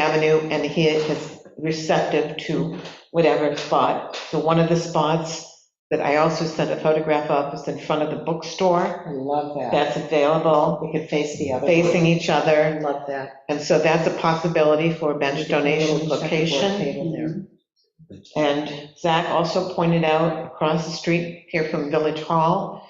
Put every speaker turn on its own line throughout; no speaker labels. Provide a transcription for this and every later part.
Avenue, and he is receptive to whatever spot. So one of the spots that I also sent a photograph of is in front of the bookstore.
I love that.
That's available,
We could face the other.
facing each
I
other.
love that.
And so that's a possibility for a bench donation
Little checkerboard
location.
table there.
And Zach also pointed out across the street here from Village Hall,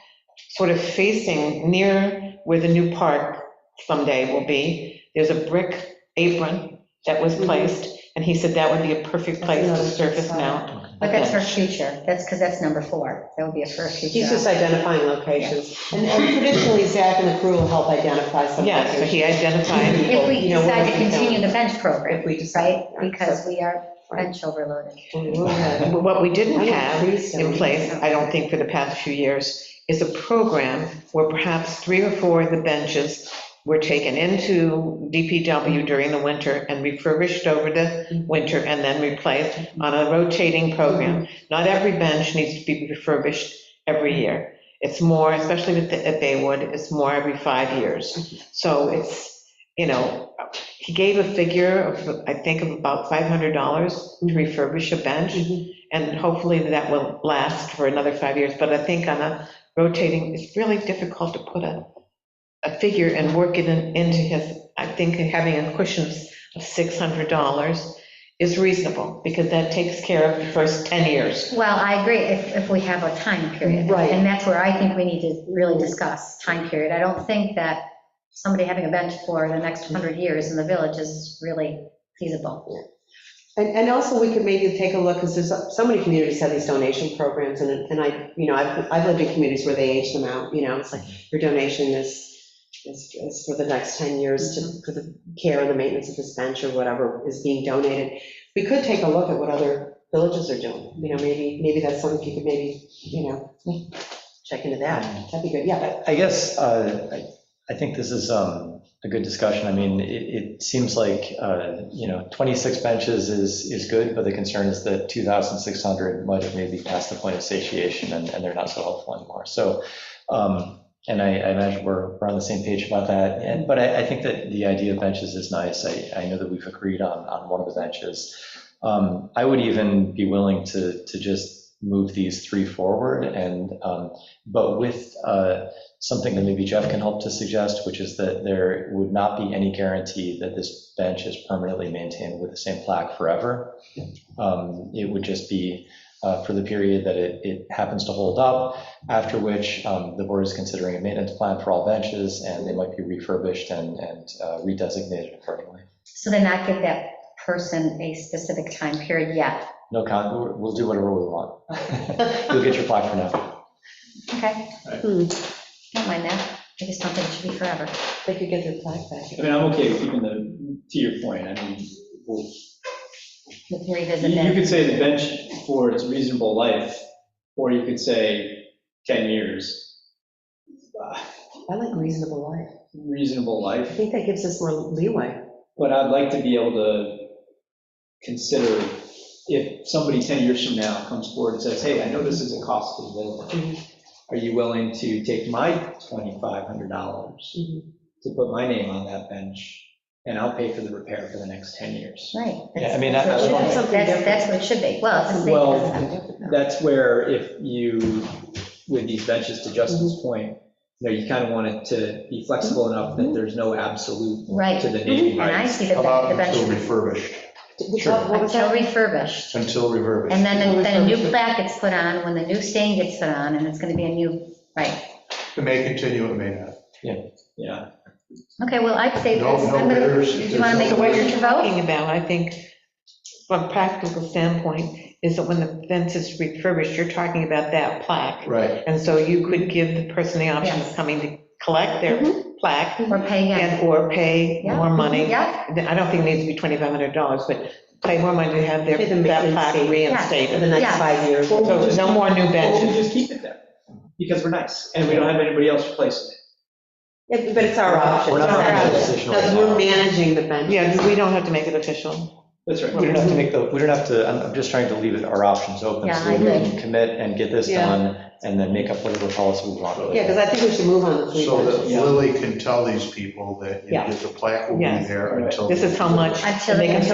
sort of facing near where the new park someday will be, there's a brick apron that was placed, and he said that would be a perfect place to surface mount.
But that's for future, that's, because that's number four, that would be a for a future.
He's just identifying locations. And and traditionally, Zach and the crew will help identify some
Yeah, so
locations.
he identified,
If we
you know,
decide
where
to
we can-
continue the bench program,
If we decide.
right, because we are bench overloaded.
Right.
what we didn't have in
Increasing.
place, I don't think for the past few years, is a program where perhaps three or four of the benches were taken into DPW during the winter and refurbished over the winter and then replaced on a rotating program. Not every bench needs to be refurbished every year. It's more, especially with the- at Baywood, it's more every five years. So it's, you know, he gave a figure of, I think, of about $500 to refurbish a bench. And hopefully that will last for another five years, but I think on a rotating, it's really difficult to put a, a figure and work it in- into his, I think having a cushion of $600 is reasonable, because that takes care of the first 10 years.
Well, I agree, if, if we have a time period.
Right.
And that's where I think we need to really discuss, time period. I don't think that somebody having a bench for the next 100 years in the village is really feasible.
And, and also, we could maybe take a look, because there's, so many communities have these donation programs, and, and I, you know, I've, I've lived in communities where they age them out, you know, it's like, your donation is, is, is for the next 10 years to, for the care and the maintenance of this bench or whatever is being donated. We could take a look at what other villages are doing, you know, maybe, maybe that's something you could maybe, you know, check into that, that'd be good, yeah.
I I guess, uh, I I think this is um, a good discussion. I mean, it it seems like, uh, you know, 26 benches is, is good, but the concern is that 2,600 might have maybe passed the point of satiation, and and they're not so helpful anymore. So, um, and I I imagine we're, we're on the same page about that. And, but I I think that the idea of benches is nice. I I know that we've agreed on, on one of the benches. Um, I would even be willing to, to just move these three forward and, um, but with uh, something that maybe Jeff can help to suggest, which is that there would not be any guarantee that this bench is permanently maintained with the same plaque forever. Um, It would just be uh, for the period that it, it happens to hold up, after which um, the board is considering a maintenance plan for all benches, and they might be refurbished and, and uh, redesignated accordingly.
So then not give that person a specific time period yet,
No con, we'll- we'll do whatever we want. You'll get your plaque for now.
okay?
Hmm.
Don't mind that, I just don't think it should be forever.
They could get their plaque back.
I mean, I'm okay with keeping the, to your point, I mean, we'll-
We can
you
revisit
you
that.
could say the bench for its reasonable life, or you could say 10 years. Ah,
I like reasonable life.
Reasonable
I
life,
think that gives us more leeway.
but I'd like to be able to consider if somebody 10 years from now comes forward and says, hey, I know this is a cost to the village. Are you willing to take my $2,500
Mhm.
to put my name on that bench, and I'll pay for the repair for the next 10 years?
Right.
Yeah, I
that's-
mean, I-
That's
I
what
want-
it should be. That's- that's what it should be, well, it's the same
Well,
concept.
that's where if you, with these benches, to Justin's point, you know, you kind of want it to be flexible enough that there's no absolute
Right,
to the naming
and I
rights.
see the
Allowed
the
until
bench,
refurbished,
What what was
until
that?
refurbished.
until refurbished.
And then, then a new plaque gets put on, when the new stain gets put on, and it's gonna be a new, right.
It may continue, it may not.
Yeah,
Okay, well, I'd say,
No,
that's-
no
I'm gonna,
bidders,
do you
there's
wanna
no
make a
bidders.
motion to vote?
Talking about, I think, from a practical standpoint, is that when the fence is refurbished, you're talking about that plaque.
Right.
And so you could give the person the option of
Yes.
coming to collect their plaque
Or pay again?
and or pay
Yeah. Mm-hmm.
more money.
Yeah,
I don't think it needs to be $2,500, but pay more money to have their,
Pay the
that
maintenance
plaque
fee. For the
reinstated.
Yeah.
next five years.
Well,
So no more new
well, we
benches.
just keep it there, because we're nice, and we don't have anybody else replacing it.
Yeah, But it's our option.
We're not
It's our
making a
option.
decision right
Because
now.
we're managing the bench.
Yeah, we don't have to make it official.
That's right.
We don't have to make the, we don't have to, I'm, I'm just trying to leave it, our options open,
Yeah,
so
I
we can
agree.
commit and get this
Yeah.
done, and then make up whatever policy we want.
Yeah, because I think we should move on to three
So that
benches.
Lily can tell these people that you know,
Yeah.
the plaque will be
Yes.
there
Right.
until.
This is how much,
Until
and they can
they-